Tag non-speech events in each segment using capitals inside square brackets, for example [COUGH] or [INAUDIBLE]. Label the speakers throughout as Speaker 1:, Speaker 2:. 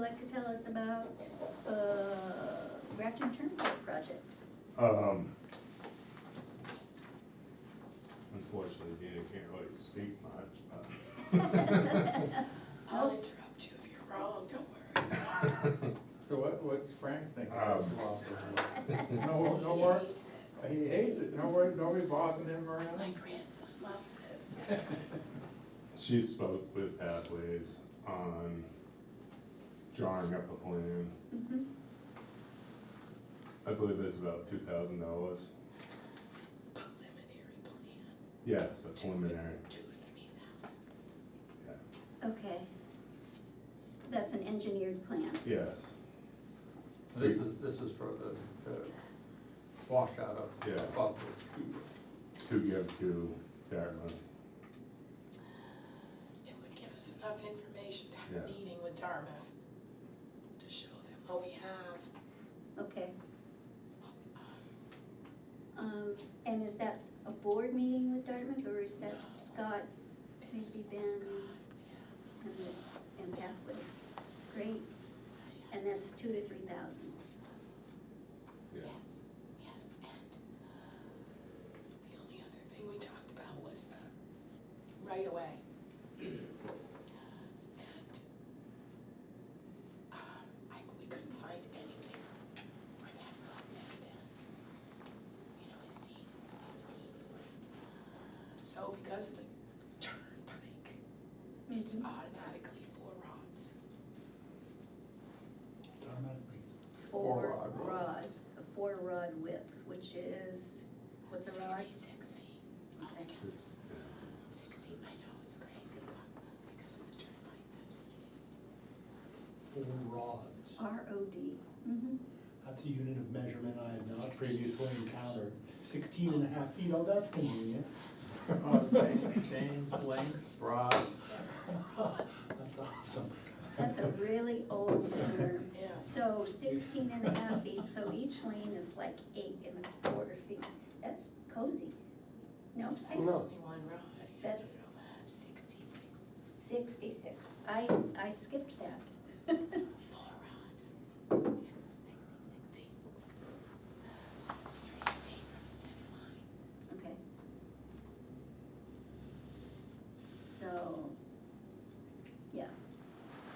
Speaker 1: like to tell us about uh, Grafton Turnpike project?
Speaker 2: Um, Unfortunately, Dana can't really speak much,
Speaker 3: I'll interrupt you if you're wrong, don't worry.
Speaker 2: but.
Speaker 4: So what, what's Frank think?
Speaker 2: Um. Oh,
Speaker 4: No, no work,
Speaker 3: He said,
Speaker 4: he hates it, no work, nobody bossing him
Speaker 5: [LAUGHS]
Speaker 3: My
Speaker 4: around?
Speaker 3: grandson loves it.
Speaker 2: She spoke with Pathways on drawing up a plan.
Speaker 3: Mm-hmm.
Speaker 1: Mhm.
Speaker 2: I believe it's about two thousand dollars.
Speaker 3: Preliminary plan.
Speaker 2: Yes, a preliminary,
Speaker 3: Two to three thousand.
Speaker 2: yeah.
Speaker 1: Okay. That's an engineered plan.
Speaker 2: yes,
Speaker 5: This is, this is for the, the washout of,
Speaker 2: Yeah.
Speaker 5: of the ski.
Speaker 2: to give to Dartmouth.
Speaker 3: It would give us enough information to have a
Speaker 2: Yeah.
Speaker 3: meeting with Dartmouth to show them what we have.
Speaker 1: Okay. Um, And is that a board meeting with Dartmouth, or is that Scott
Speaker 3: It's
Speaker 1: Maybe
Speaker 3: Scott,
Speaker 1: Ben.
Speaker 3: yeah,
Speaker 1: and the- and Pathway? Great,
Speaker 3: I-
Speaker 1: and that's two to three thousand.
Speaker 2: Yeah.
Speaker 3: Yes, yes, and the only other thing we talked about was the right of way. And um, I, we couldn't find anything where that road has been. You know, his deed, they have a deed for it. So because it's a turnpike, it's
Speaker 1: Mm-hmm.
Speaker 3: automatically four rods.
Speaker 1: Four
Speaker 5: Four-rod rods.
Speaker 1: rods, a four rod width, which is, what's a rod?
Speaker 3: Sixty-six feet.
Speaker 1: Okay.
Speaker 3: Sixty, I know, it's crazy, but because it's a turnpike, that's what it is.
Speaker 6: four rods.
Speaker 1: R O D.
Speaker 3: Mm-hmm.
Speaker 1: Mhm.
Speaker 6: That's a unit of measurement I had not
Speaker 3: 16.
Speaker 6: previously encountered. Sixteen and a half feet, oh, that's convenient.
Speaker 4: Oh, chain- Chains, links, rods,
Speaker 3: Rods,
Speaker 6: [LAUGHS] That's awesome.
Speaker 1: That's a really old term.
Speaker 3: yeah.
Speaker 1: So sixteen and a half feet, so each lane is like eight and a quarter feet. That's cozy. No,
Speaker 3: It's
Speaker 1: six-
Speaker 3: only one rod. I
Speaker 1: That's-
Speaker 3: don't know, Sixty-six,
Speaker 1: sixty-six. I, I skipped that. [LAUGHS]
Speaker 3: four rods. Yeah, like they- So it's thirty feet from the center line.
Speaker 1: Okay. So, yeah,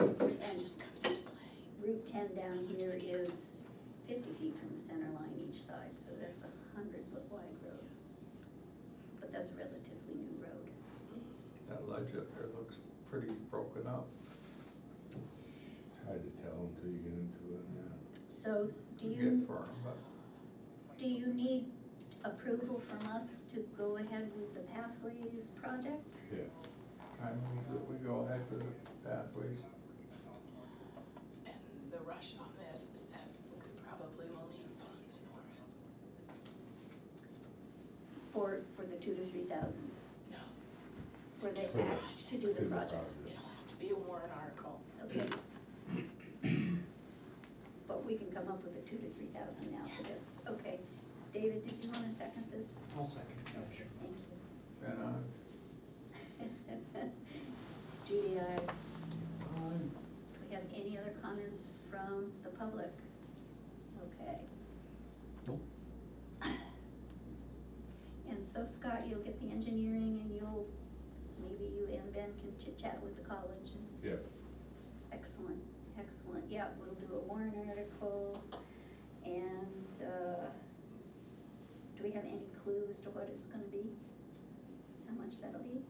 Speaker 3: And that just comes into play.
Speaker 1: Route ten down here is fifty feet from the center line each side, so that's a hundred foot wide road. But that's a relatively new road.
Speaker 5: That ledge up there looks pretty broken up.
Speaker 2: It's hard to tell until you get into it, yeah.
Speaker 1: So do
Speaker 5: to
Speaker 1: you?
Speaker 5: get firm, but
Speaker 1: Do you need approval from us to go ahead with the pathways project?
Speaker 5: I move that we go ahead with the pathways.
Speaker 3: And the rush on this is that we probably will need funds for it.
Speaker 1: For, for the two to three thousand,
Speaker 3: No,
Speaker 1: for the
Speaker 2: For the-
Speaker 1: act to do the
Speaker 2: See the
Speaker 1: project,
Speaker 2: project.
Speaker 3: it'll have to be a warrant article.
Speaker 1: okay? But we can come up with a two to three thousand now for this, okay. David, did you wanna second this?
Speaker 6: I'll second, yeah, sure.
Speaker 1: Thank
Speaker 5: And I,
Speaker 1: you. [LAUGHS] Judy, I,
Speaker 6: Um,
Speaker 1: do we have any other comments from the public? Okay.
Speaker 6: Nope.
Speaker 1: [COUGHS] And so Scott, you'll get the engineering and you'll, maybe you and Ben can chit chat with the college and.
Speaker 2: Yeah.
Speaker 1: Excellent, excellent, yeah, we'll do a warrant article and, uh, do we have any clue as to what it's gonna be? How much that'll be?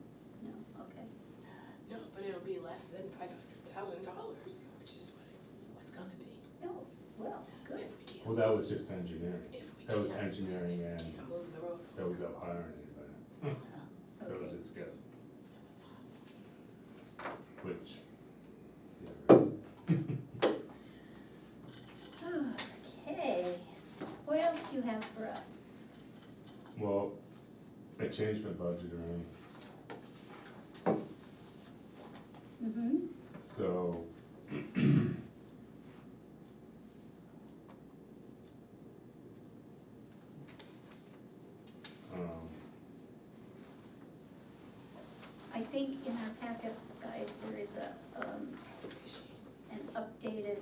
Speaker 1: No, okay,
Speaker 3: No, but it'll be less than five hundred thousand dollars, which is what it was gonna be.
Speaker 1: no, well,
Speaker 3: If
Speaker 1: good,
Speaker 3: we can't.
Speaker 2: Well, that was just engineering,
Speaker 3: If we
Speaker 2: that was
Speaker 3: can't-
Speaker 2: engineering
Speaker 3: if we
Speaker 2: and-
Speaker 3: can't move the road.
Speaker 2: that was up higher than anybody. That was
Speaker 1: okay,
Speaker 2: just guess,
Speaker 3: That was awful.
Speaker 2: which, yeah,
Speaker 1: okay, what else do you have for us?
Speaker 2: Well, I changed my budget around,
Speaker 1: Mm-hmm,
Speaker 2: so. [CLEARS THROAT] Um,
Speaker 1: I think in our packets, guys, there is a, um,
Speaker 3: Appreciate
Speaker 1: an updated